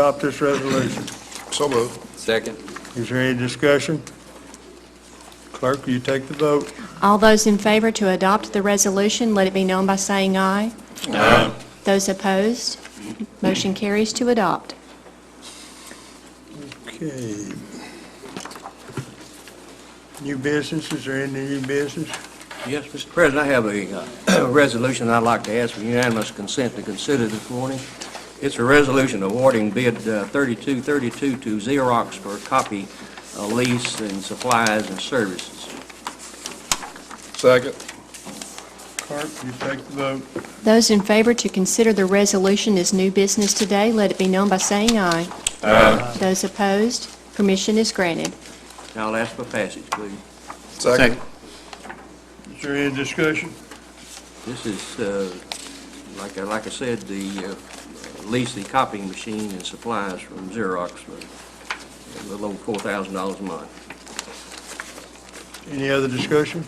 adopt this resolution? So moved. Second. Is there any discussion? Clerk, will you take the vote? All those in favor to adopt the resolution, let it be known by saying aye. Aye. Those opposed, motion carries to adopt. Okay. New business, is there any new business? Yes, Mr. President, I have a uh, resolution I'd like to ask for unanimous consent to consider this morning. It's a resolution awarding bid uh, 3232 to Xerox for copy uh, lease and supplies and services. Second. Clerk, will you take the vote? Those in favor to consider the resolution as new business today, let it be known by saying aye. Aye. Those opposed, permission is granted. Now I'll ask for passage, please. Second. Is there any discussion? This is, uh, like I like I said, the uh, lease, the copying machine and supplies from Xerox for a little over $4,000 a month. Any other discussion?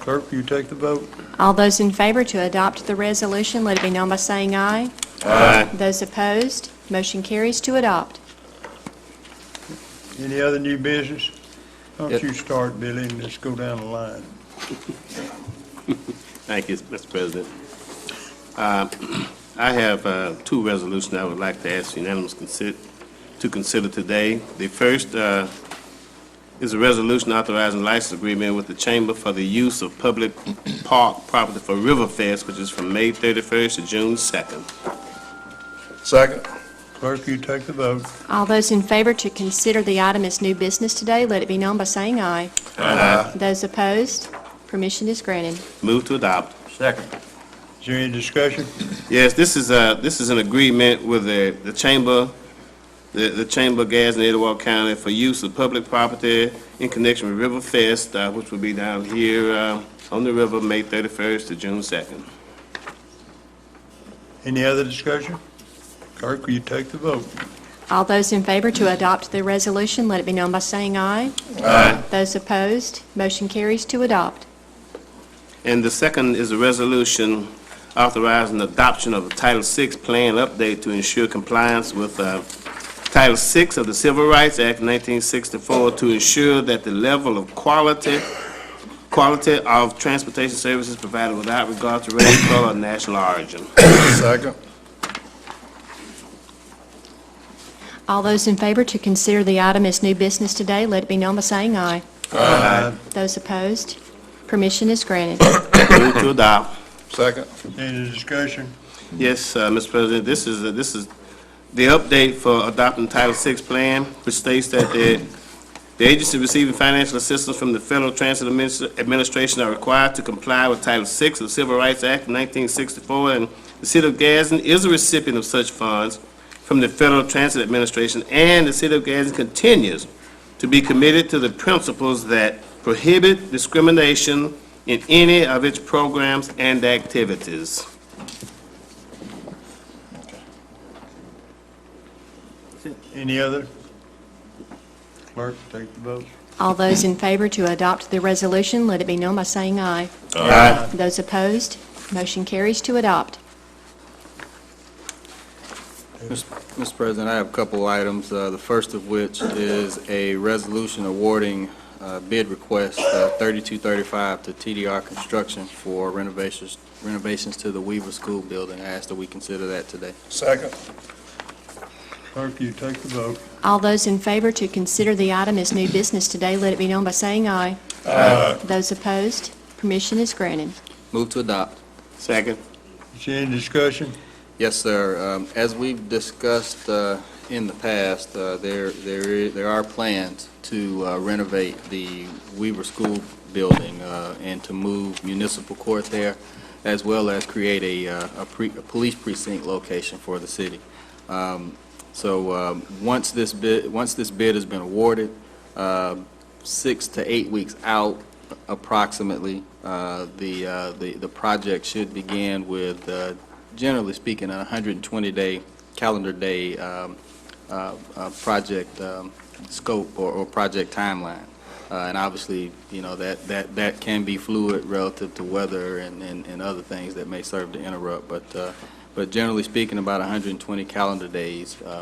Clerk, will you take the vote? All those in favor to adopt the resolution, let it be known by saying aye. Aye. Those opposed, motion carries to adopt. Any other new business? Why don't Yep. you start, Billy, and let's go down the line. Thank you, Mr. President. Uh, I have uh, two resolutions I would like to ask unanimous consi- to consider today. The first uh, is a resolution authorizing license agreement with the Chamber for the use of public park property for Riverfest, which is from May 31st to June 2nd. Second. Clerk, will you take the vote? All those in favor to consider the item as new business today, let it be known by saying aye. Aye. Those opposed, permission is granted. Move to adopt. Second. Is there any discussion? Yes, this is a, this is an agreement with the, the Chamber, the, the Chamber of Gas in Edgewater County for use of public property in connection with River Fest, uh, which will be down here, uh, on the river, May thirty-first to June second. Any other discussion? Clerk, will you take the vote? All those in favor to adopt the resolution, let it be known by saying aye. Aye. Those opposed, motion carries to adopt. And the second is a resolution authorizing adoption of a Title VI plan update to ensure compliance with uh, Title VI of the Civil Rights Act 1964 to ensure that the level of quality, quality of transportation services provided without regard to race, color, or national origin. Second. All those in favor to consider the item as new business today, let it be known by saying aye. Aye. Those opposed, permission is granted. Move to adopt. Second. Any discussion? Yes, uh, Mr. President, this is, this is the update for adopting Title VI plan, which states that the, the agency receiving financial assistance from the Federal Transit Adminis- Administration are required to comply with Title VI of the Civil Rights Act of 1964, and the city of Gadsden is a recipient of such funds from the Federal Transit Administration, and the city of Gadsden continues to be committed to the principles that prohibit discrimination in any of its programs and activities. Any other? Clerk, take the vote. All those in favor to adopt the resolution, let it be known by saying aye. Aye. Those opposed, motion carries to adopt. Mr. President, I have a couple items, uh, the first of which is a resolution awarding uh, bid request uh, 3235 to TDR Construction for renovations renovations to the Weaver School building. I ask that we consider that today. Second. Clerk, you take the vote. All those in favor to consider the item as new business today, let it be known by saying aye. Aye. Those opposed, permission is granted. Move to adopt. Second. Is there any discussion? Yes, sir. Um, As we've discussed uh, in the past, uh, there there i- there are plans to uh, renovate the Weaver School building uh, and to move municipal court there, as well as create a uh, a pre- a police precinct location for the city. Um, So um, once this bid, once this bid has been awarded, uh, six to eight weeks out approximately, uh, the uh, the the project should begin with uh, generally speaking, a 120-day, calendar day um, uh, uh, project um, scope or- or project timeline. Uh, And obviously, you know, that that that can be fluid relative to weather and and and other things that may serve to interrupt, but uh, but generally speaking, about 120 calendar days uh,